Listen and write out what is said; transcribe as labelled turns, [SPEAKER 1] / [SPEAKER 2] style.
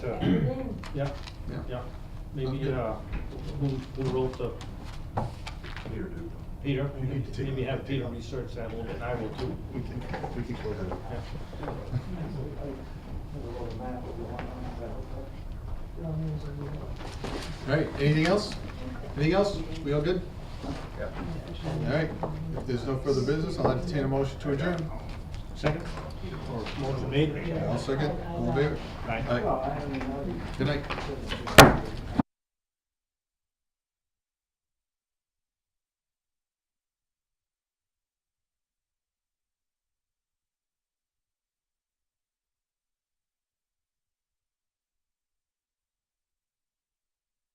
[SPEAKER 1] to,
[SPEAKER 2] Everything.
[SPEAKER 1] yeah,
[SPEAKER 3] Yeah.
[SPEAKER 1] yeah. Maybe,
[SPEAKER 3] Okay.
[SPEAKER 1] uh, who, who wrote the,
[SPEAKER 4] Peter, dude.
[SPEAKER 1] Peter?
[SPEAKER 4] You need to take-
[SPEAKER 1] Maybe have
[SPEAKER 4] take-
[SPEAKER 1] Peter research that a little bit, and I will too.
[SPEAKER 4] We can, we can go ahead.
[SPEAKER 1] Yeah.
[SPEAKER 3] All right, anything else? Anything else? We all good? All right, if there's no further business, I'll entertain a motion to adjourn.
[SPEAKER 1] Second? Or motion made?
[SPEAKER 3] I'll second, all in favor?
[SPEAKER 1] Aye.
[SPEAKER 3] Aye. Good night.